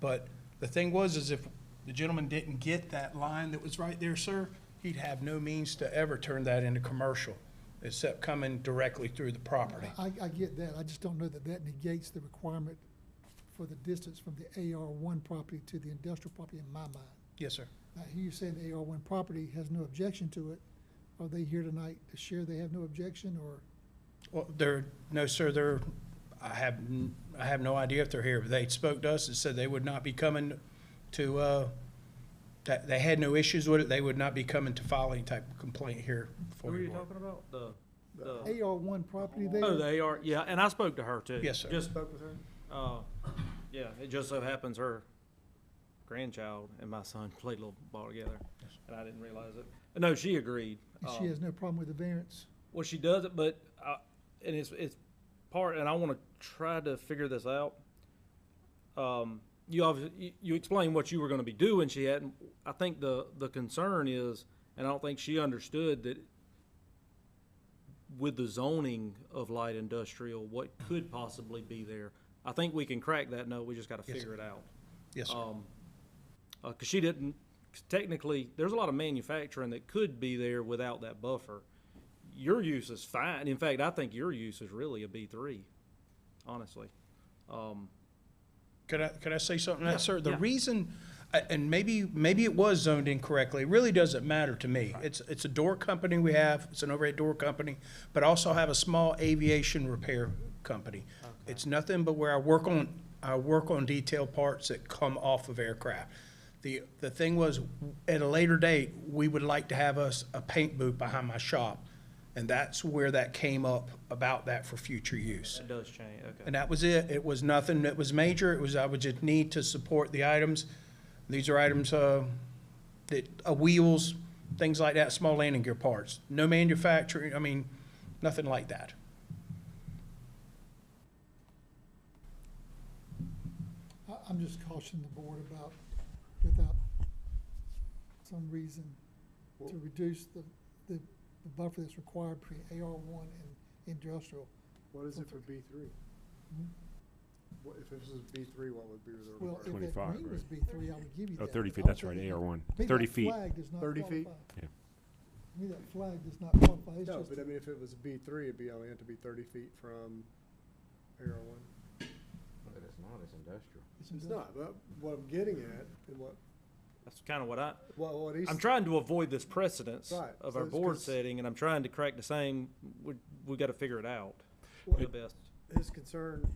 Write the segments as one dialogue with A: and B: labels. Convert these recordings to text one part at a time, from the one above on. A: But the thing was, is if the gentleman didn't get that line that was right there, sir, he'd have no means to ever turn that into commercial, except coming directly through the property.
B: I, I get that, I just don't know that that negates the requirement for the distance from the AR one property to the industrial property in my mind.
A: Yes, sir.
B: Now, here you're saying the AR one property has no objection to it, are they here tonight to share they have no objection, or?
A: Well, they're, no, sir, they're, I have, n- I have no idea if they're here. They spoke to us and said they would not be coming to, uh, that, they had no issues with it. They would not be coming to file any type of complaint here
C: What
A: for
C: are
A: you.
C: you talking about? The, the,
B: AR one property
C: Uh, oh,
B: there,
C: the AR, yeah, and I spoke to her too.
A: Yes, sir.
C: Just spoke with her? Uh, yeah, it just so happens her grandchild and my son played a little ball together, and I didn't realize it. But No, she agreed.
B: and
C: Um,
B: she has no problem with the variance?
C: Well, she does it, but I, and it's it's part, and I want to try to figure this out. Um, you obviously you, you explained what you were going to be doing. She hadn't. I think the the concern is, and I don't think she understood that with the zoning of light industrial, what could possibly be there. I think we can crack that. No, we just got to
A: Yes,
C: figure it out.
A: Yes, sir.
C: Um, uh 'cause cause she didn't, 'cause technically, there's a lot of manufacturing that could be there without that buffer. Your use is fine. In fact, I think your use is really a B three, honestly. Um,
A: Could I, could I say something to that, sir? The
C: yeah.
A: reason, a- and maybe, maybe it was zoned incorrectly, it really doesn't matter to me. It's, it's a door company we have, it's an overhead door company, but I also have a small aviation repair company. It's nothing but where I work on, I work on detail parts that come off of aircraft. The, the thing was, at a later date, we would like to have us a paint booth behind my shop, and that's where that came up about that for future use.
C: that does change, okay.
A: And that was it. It was nothing that was major. It was, I would just need to support the items. These are items, uh, that, uh, wheels, things like that, small landing gear parts. No manufacturing, I mean, nothing like that.
B: I, I'm just cautioning the board about, without some reason to reduce the, the, the buffer that's required between AR one and industrial.
D: What is it for B three? Mm-hmm. What, if this is B three, what would be the
B: Well,
D: requirement?
B: if that
E: 25,
B: green
E: right.
B: was B three, I would give you that.
E: Oh, 30
B: but
E: feet,
B: I'm
E: that's right,
B: thinking-
E: AR1.
B: to me,
E: 30
B: that
E: feet.
B: flag does not
D: 30 feet?
B: qualify.
E: Yeah.
B: To me, that flag does not qualify, it's
D: No,
B: just,
D: but I mean, if it was B three, it'd be, only have to be thirty feet from AR one.
F: But it's not, it's industrial.
B: it's
D: It's
B: industrial.
D: not, but what I'm getting at, and what,
C: That's kind of what I,
D: what, what he's.
C: I'm trying to avoid this precedence
D: Right,
C: of
D: so
C: our
D: it's
C: board
D: 'cause-
C: setting, and I'm trying to crack the same, we, we gotta figure it out.
D: Well,
C: The best,
D: His concern,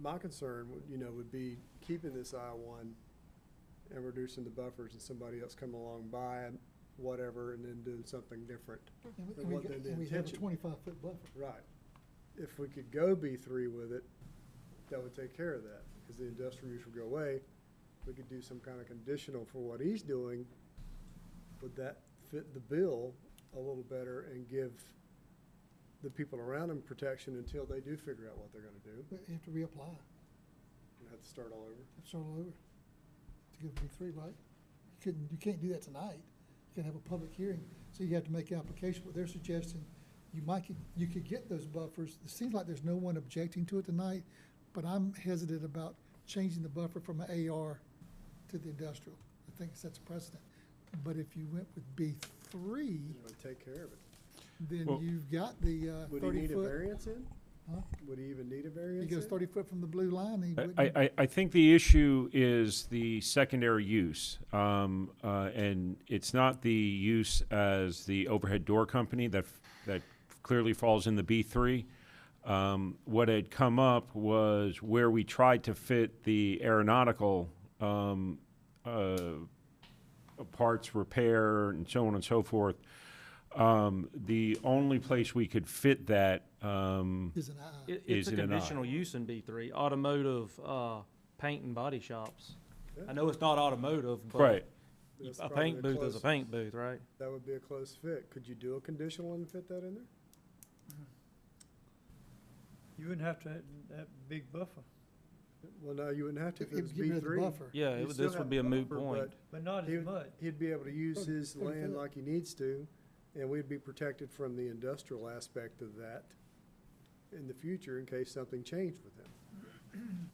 D: my concern, would you know, would be keeping this I one and reducing the buffers and somebody else coming along by and whatever, and then doing something different.
B: And we-
D: But
B: and we
D: what
B: got-
D: the- the
B: and we have a
D: intention-
B: twenty-five foot buffer.
D: Right. If we could go B three with it, that would take care of that, because the industrial use would go away. We could do some kind of conditional for what he's doing. Would that fit the bill a little better and give the people around him protection until they do figure out what they're gonna do?
B: But you have to reapply,
D: And have to start all over.
B: it's all over, to give B three, right? You couldn't, you can't do that tonight, you can have a public hearing, so you have to make an application, what they're suggesting, you might, could- you could get those buffers, it seems like there's no one objecting to it tonight, but I'm hesitant about changing the buffer from a AR to the industrial, I think it sets a precedent. But if you went with B three,
D: You know, and take care of it.
B: then
E: Well-
B: you've got the uh,
D: Would he
B: thirty
D: need a
B: foot.
D: variance in?
B: Huh?
D: Would he even need a
B: He
D: variance
B: goes
D: in?
B: thirty foot from the blue line, he
E: I-
B: wouldn't.
E: I, I, I think the issue is the secondary use. Um, uh, and it's not the use as the overhead door company that, f- that clearly falls in the B3. Um, what had come up was where we tried to fit the aeronautical um, uh, parts repair and so on and so forth. Um, the only place we could fit that um,
B: Is an eye.
C: it, it's
E: Is
C: a
E: it an I?
C: conditional use in B three, automotive, uh, paint and body shops.
D: Yeah.
C: I know it's not automotive, but.
E: right
D: That's
C: A
D: probably
C: paint
D: the
C: booth is a
D: closest-
C: paint booth, right?
D: That would be a close fit. Could you do a conditional and fit that in there?
G: You wouldn't have to have that big buffer,
D: Well, no, you wouldn't have to if
B: If-
D: it was
B: if you
D: B
B: get rid of the
D: three.
B: buffer.
C: Yeah,
D: You
C: it would-
D: still
C: this
D: have
C: would be a moot
D: buffer,
C: point.
G: but not
D: He
G: as
D: would-
G: much.
D: He'd be able to use
B: Thirty-
D: his
B: thirty
D: land
B: foot.
D: like he needs to, and we'd be protected from the industrial aspect of that in the future in case something changed with him.